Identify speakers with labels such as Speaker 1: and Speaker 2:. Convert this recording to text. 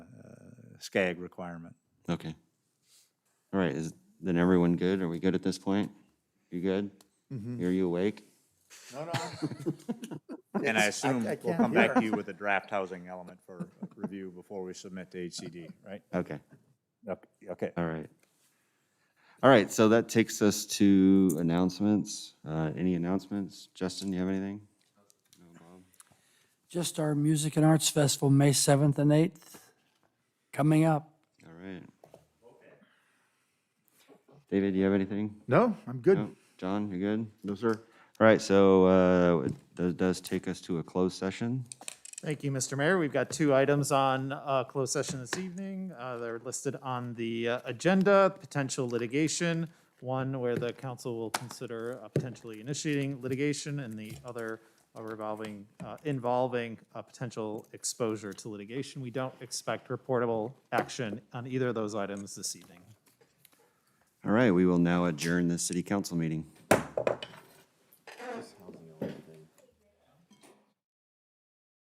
Speaker 1: SCAG requirement.
Speaker 2: Okay. All right, is, then everyone good? Are we good at this point? You good?
Speaker 3: Mm-hmm.
Speaker 2: Are you awake?
Speaker 1: No, no. And I assume
Speaker 3: I
Speaker 1: we'll
Speaker 3: can't
Speaker 1: come back
Speaker 3: hear.
Speaker 1: to you with a draft housing element for review before we submit to HCD, right?
Speaker 2: Okay,
Speaker 1: Okay, Okay.
Speaker 2: all right. All right, so that takes us to announcements. Uh, any announcements? Justin, you have anything?
Speaker 4: Just our Music and Arts Festival, May 7th and 8th, coming up.
Speaker 2: All right. David, you have anything?
Speaker 3: No, I'm good.
Speaker 2: No? John, you good? No, sir. All right, so, uh, that does take us to a closed session.
Speaker 5: Thank you, Mr. Mayor. We've got two items on uh, closed session this evening. Uh, They're listed on the uh, agenda, potential litigation, one where the council will consider uh, potentially initiating litigation, and the other uh, revolving, uh, involving uh, potential exposure to litigation. We don't expect reportable action on either of those items this evening.
Speaker 2: All right, we will now adjourn the city council meeting.